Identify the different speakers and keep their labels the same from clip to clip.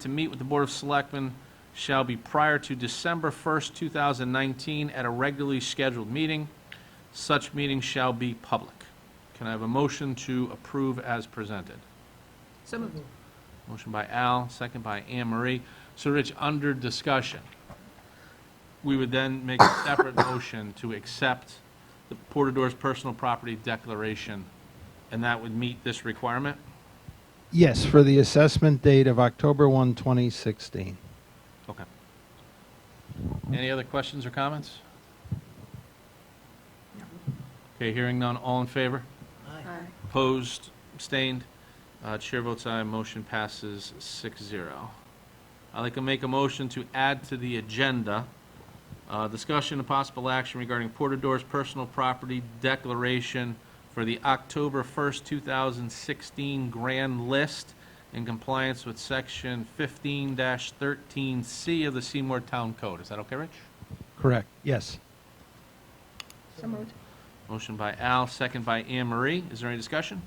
Speaker 1: to meet with the Board of Selectmen shall be prior to December 1st, 2019, at a regularly scheduled meeting. Such meeting shall be public. Can I have a motion to approve as presented?
Speaker 2: So moved.
Speaker 1: Motion by Al, second by Anne Marie. So Rich, under discussion, we would then make a separate motion to accept the Portador's personal property declaration, and that would meet this requirement?
Speaker 3: Yes, for the assessment date of October 1, 2016.
Speaker 1: Okay. Any other questions or comments? Okay, hearing none, all in favor?
Speaker 2: Aye.
Speaker 1: Opposed, abstained? Uh, Chair votes aye, motion passes 6-0. I'd like to make a motion to add to the agenda, uh, discussion and possible action regarding Portador's personal property declaration for the October 1st, 2016 grand list in compliance with Section 15-13C of the Seymour Town Code. Is that okay, Rich?
Speaker 3: Correct, yes.
Speaker 2: So moved.
Speaker 1: Motion by Al, second by Anne Marie. Is there any discussion?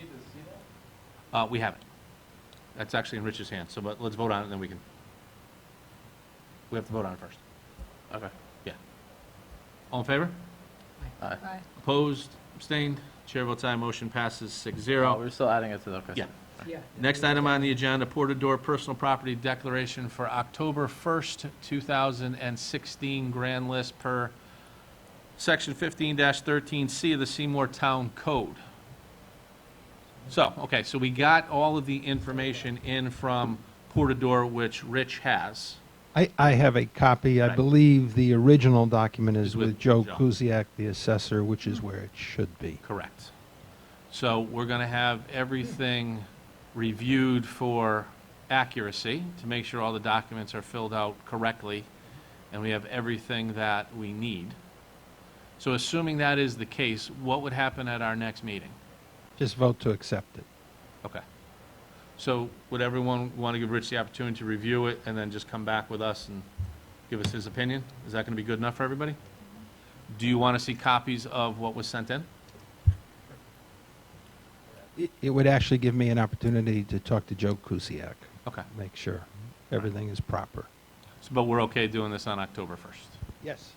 Speaker 1: Do we need to see that? Uh, we haven't. That's actually in Rich's hand, so but let's vote on it, and then we can. We have to vote on it first. Okay, yeah. All in favor? Aye.
Speaker 2: Aye.
Speaker 1: Opposed, abstained? Chair votes aye, motion passes six
Speaker 4: Oh,
Speaker 1: zero.
Speaker 4: we're still adding it to the, okay.
Speaker 1: Yeah.
Speaker 2: Yeah.
Speaker 1: Next item on the agenda, Portador Personal Property Declaration for October 1st, 2016, grand list per Section 15-13C of the Seymour Town Code. So, okay, so we got all of the information in from Portador, which Rich has.
Speaker 3: I, I have a copy. I
Speaker 1: Right.
Speaker 3: believe the original document
Speaker 1: Is
Speaker 3: is
Speaker 1: with
Speaker 3: with Joe
Speaker 1: Joe.
Speaker 3: Kuziak, the assessor, which is where it should be.
Speaker 1: Correct. So we're going to have everything reviewed for accuracy, to make sure all the documents are filled out correctly, and we have everything that we need. So assuming that is the case, what would happen at our next meeting?
Speaker 3: Just vote to accept it.
Speaker 1: Okay. So would everyone want to give Rich the opportunity to review it and then just come back with us and give us his opinion? Is that going to be good enough for everybody? Do you want to see copies of what was sent in?
Speaker 3: It- It would actually give me an opportunity to talk to Joe Kuziak,
Speaker 1: Okay.
Speaker 3: make sure everything is proper.
Speaker 1: So, But we're okay doing this on October 1st?
Speaker 3: Yes.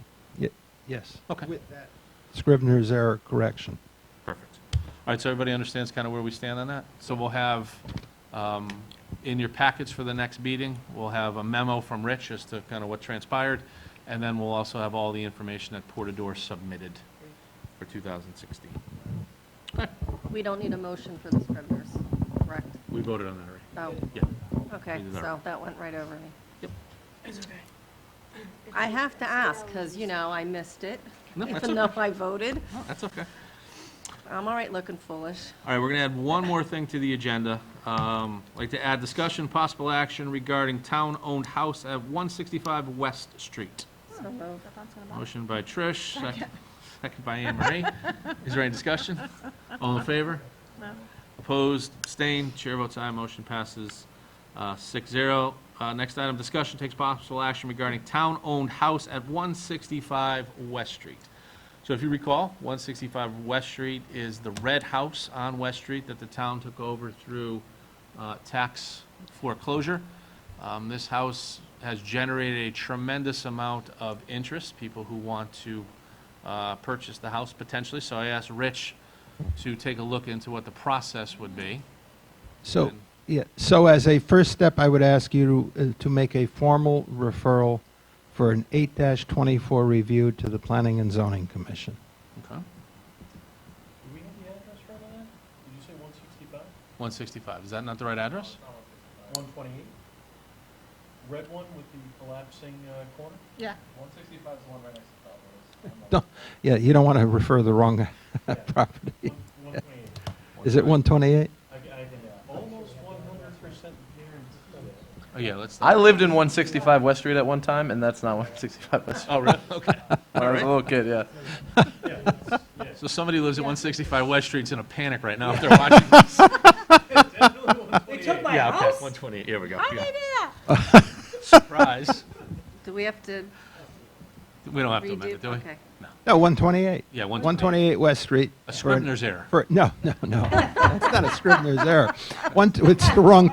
Speaker 3: Yes.
Speaker 1: Okay.
Speaker 3: With that Scrivener's error correction.
Speaker 1: Perfect. All right, so everybody understands kind of where we stand on that? So we'll have, um, in your packets for the next meeting, we'll have a memo from Rich as to kind of what transpired, and then we'll also have all the information that Portador submitted for 2016.
Speaker 5: We don't need a motion for the scriveners, correct?
Speaker 1: We voted on that already?
Speaker 5: Oh,
Speaker 1: Yeah.
Speaker 5: okay,
Speaker 1: We did that.
Speaker 5: so that went right over me. It's okay. I have to ask, because, you know, I missed it,
Speaker 1: No, that's
Speaker 5: even though I voted.
Speaker 1: No, that's okay.
Speaker 5: I'm all right looking foolish.
Speaker 1: All right, we're going to add one more thing to the agenda. Um, Like to add discussion, possible action regarding town-owned house at 165 West Street.
Speaker 5: So moved.
Speaker 1: Motion by Trish, second second by Anne Marie. Is there any discussion? All in favor?
Speaker 2: No.
Speaker 1: Opposed, abstained, chair votes aye, motion passes uh, 6-0. Uh, Next item, discussion takes possible action regarding town-owned house at 165 West Street. So if you recall, 165 West Street is the red house on West Street that the town took over through uh, tax foreclosure. Um, This house has generated a tremendous amount of interest, people who want to uh, purchase the house potentially. So I asked Rich to take a look into what the process would be.
Speaker 3: So,
Speaker 1: And-
Speaker 3: yeah, so as a first step, I would ask you to, uh, to make a formal referral for an eight twenty-four review to the Planning and Zoning Commission.
Speaker 1: Okay.
Speaker 6: Do we have the address right on that? Did you say one sixty-five?
Speaker 1: 165, is that not the right address?
Speaker 6: One twenty-eight? Red one with the collapsing uh, corner?
Speaker 2: Yeah.
Speaker 6: One sixty-five is the one right next to Cowboys.
Speaker 3: Don't- Yeah, you don't want to refer the wrong property.
Speaker 6: One twenty-eight.
Speaker 3: Is it one twenty-eight?
Speaker 6: I, I can almost one hundred percent guarantee it.
Speaker 1: Oh, yeah, let's.
Speaker 4: I lived in 165 West Street at one time, and that's not 165 West Street.
Speaker 1: Oh, really? Okay.
Speaker 4: When I was a little kid, yeah.
Speaker 6: Yeah, it's-
Speaker 1: So somebody who lives at 165 West Street's in a panic right now if they're watching this.
Speaker 6: yeah, it's definitely 128.
Speaker 2: They took my
Speaker 1: Yeah, okay,
Speaker 2: house?
Speaker 1: 128, here we go.
Speaker 2: How did they do that?
Speaker 1: Surprise.
Speaker 5: Do we have to
Speaker 1: We don't have to amend
Speaker 5: redo?
Speaker 1: it, do we?
Speaker 5: Okay.
Speaker 3: No, one twenty-eight.
Speaker 1: Yeah,
Speaker 3: One
Speaker 1: 128.
Speaker 3: twenty-eight West Street.
Speaker 1: A
Speaker 3: for an-
Speaker 1: Scrivener's error.
Speaker 3: For, no, no, no. That's not a Scrivener's error. One, t- it's the wrong